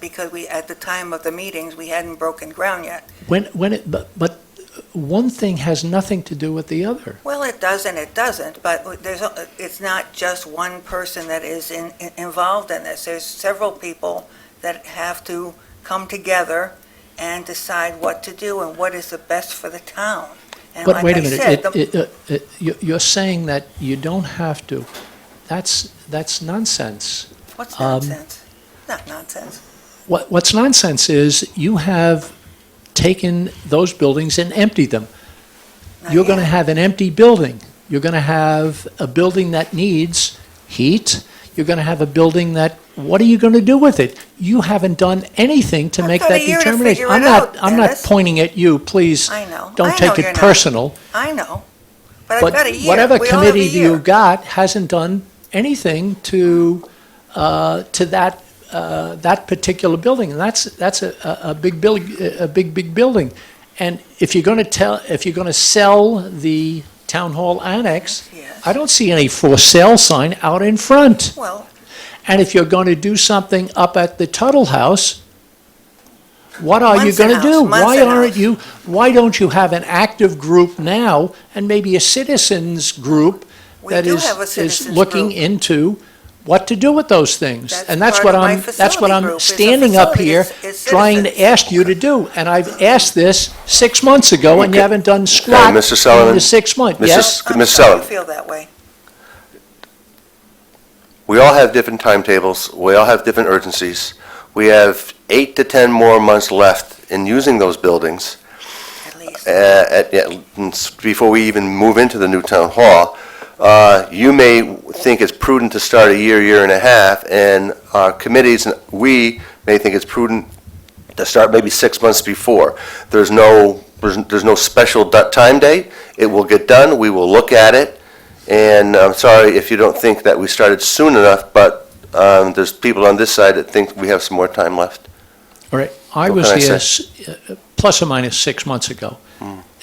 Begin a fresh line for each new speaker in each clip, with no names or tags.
because we, at the time of the meetings, we hadn't broken ground yet.
When, when it, but, but one thing has nothing to do with the other.
Well, it does and it doesn't, but there's, a- it's not just one person that is in, in- involved in this. There's several people that have to come together and decide what to do and what is the best for the town. And
But
like
wait a
I
minute,
said,
it-
the-
it, uh, it, you- you're saying that you don't have to. That's, that's nonsense.
What's
um,
nonsense? Not nonsense.
What, what's nonsense is you have taken those buildings and emptied them.
Not
You're going to
yet.
have an empty building. You're going to have a building that needs heat. You're going to have a building that, what are you going to do with it? You haven't done anything to
I've
make
got a
that
year to
determination.
figure
I'm
it
not,
out,
I'm not
Dennis.
pointing at you, please.
I know. I
Don't
know
take
you're
it
not.
personal.
I know, but I've
But
got a year.
whatever
We all have a
committee
year.
you got hasn't done anything to, uh, to that, uh, that particular building. And that's, that's a, a a big building, a big, big building. And if you're going to tell, if you're going to sell the town hall annex,
Yes.
I don't see any for sale sign out in front.
Well,
And if you're going to do something up at the Tuttle House, what are you
Munson
going to do?
House,
Why
Munson
aren't
House.
you, why don't you have an active group now and maybe a citizens group
We
that
do
is,
have a
is
citizens
looking
group.
into what to do with those things?
That's
And that's
part
what
of my
I'm, that's what
facility
I'm
group, is a
standing up
facility,
here
it's- it's
trying to
citizens.
ask you to do. And I've asked this six months ago and you
Okay.
haven't done squat in
Mr. Sullivan?
the six months.
Mrs.
Yes?
I'm
Ms.
sorry you
Sullivan.
feel that way.
We all have different timetables, we all have different urgencies. We have eight to 10 more months left in using those buildings
At least.
uh, at- at- before we even move into the new town hall. Uh, You may think it's prudent to start a year, year and a half, and our committees, and we may think it's prudent to start maybe six months before. There's no, there's there's no special du- time date. It will get done, we will look at it, and I'm sorry if you don't think that we started soon enough, but um, there's people on this side that think we have some more time left.
All right, I
What
was
can I Hmm.
here s- uh, plus or minus six months ago,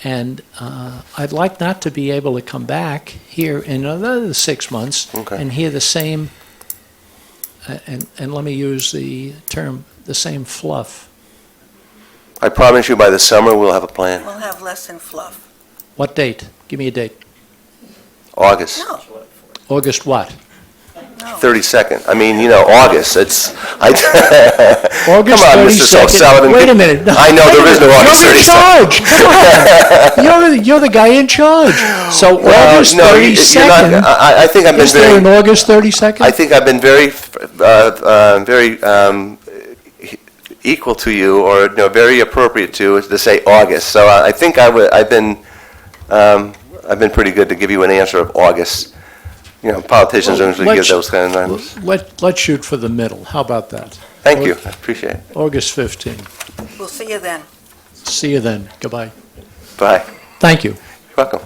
and uh, I'd like not to be able to come back here in another six months
Okay.
and hear the same, uh, and, and let me use the term, the same fluff.
I promise you by the summer, we'll have a plan.
We'll have less than fluff.
What date? Give me a date.
August.
No,
August what?
no.
32nd. I mean, you know, August, it's, I,
August
on, Mr.
32nd.
Sullivan.
Wait a minute. No,
I know
wait a
there is no
minute.
August
You're in
32nd.
charge. Come on. You're, you're the guy in charge. So
well,
August
no, you- you're not, uh,
32nd,
I, I think I've been
is there an
very,
August 32nd?
I think I've been very, uh, uh, very, um, e- equal to you, or, you know, very appropriate to, is to say August. So I I think I would, I've been, um, I've been pretty good to give you an answer of August. You know, politicians
Well,
usually give
let's-
those kind of numbers.
Let, let's shoot for the middle. How about that?
Thank you, I appreciate it.
August 15.
We'll see you then.
See you then. Goodbye.
Bye.
Thank you.
You're welcome.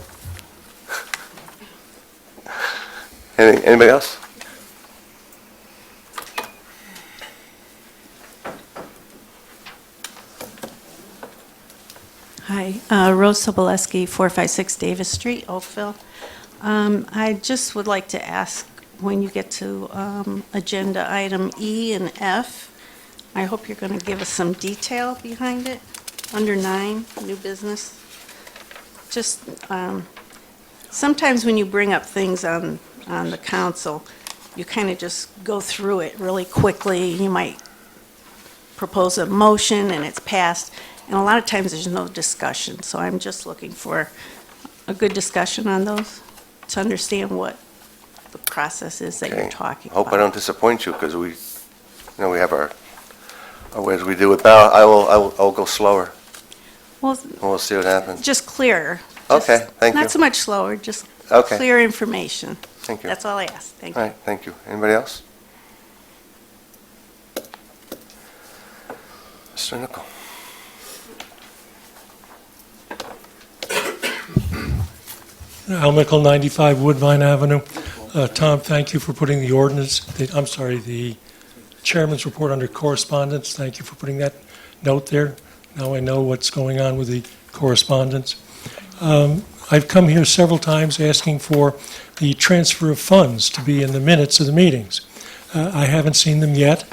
Any- Anybody else?
Hi, uh, Rose Soboleski, 456 Davis Street, Oakville. Um, I just would like to ask, when you get to um, Agenda Item E and F, I hope you're going to give us some detail behind it, under nine, new business. Just, um, sometimes when you bring up things on, on the council, you kind of just go through it really quickly. You might propose a motion and it's passed, and a lot of times there's no discussion, so I'm just looking for a good discussion on those, to understand what the process is that you're
Okay.
talking about.
Hope I don't disappoint you, because we, you know, we have our, our ways we do it, but I'll- I will, I will, I'll go slower,
Well,
and we'll see what happens.
just clearer.
Okay,
Just
thank you.
Not so much slower, just
Okay.
clear information.
Thank you.
That's all I ask, thank you.
All right, thank you. Anybody else? Mr. Nichol?
Al Mickle, 95 Woodvine Avenue. Uh, Tom, thank you for putting the ordinance, the- I'm sorry, the chairman's report under correspondence. Thank you for putting that note there. Now I know what's going on with the correspondence. Um, I've come here several times asking for the transfer of funds to be in the minutes of the meetings. Uh, I haven't seen them yet.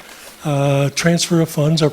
Uh, Uh, Transfer of funds are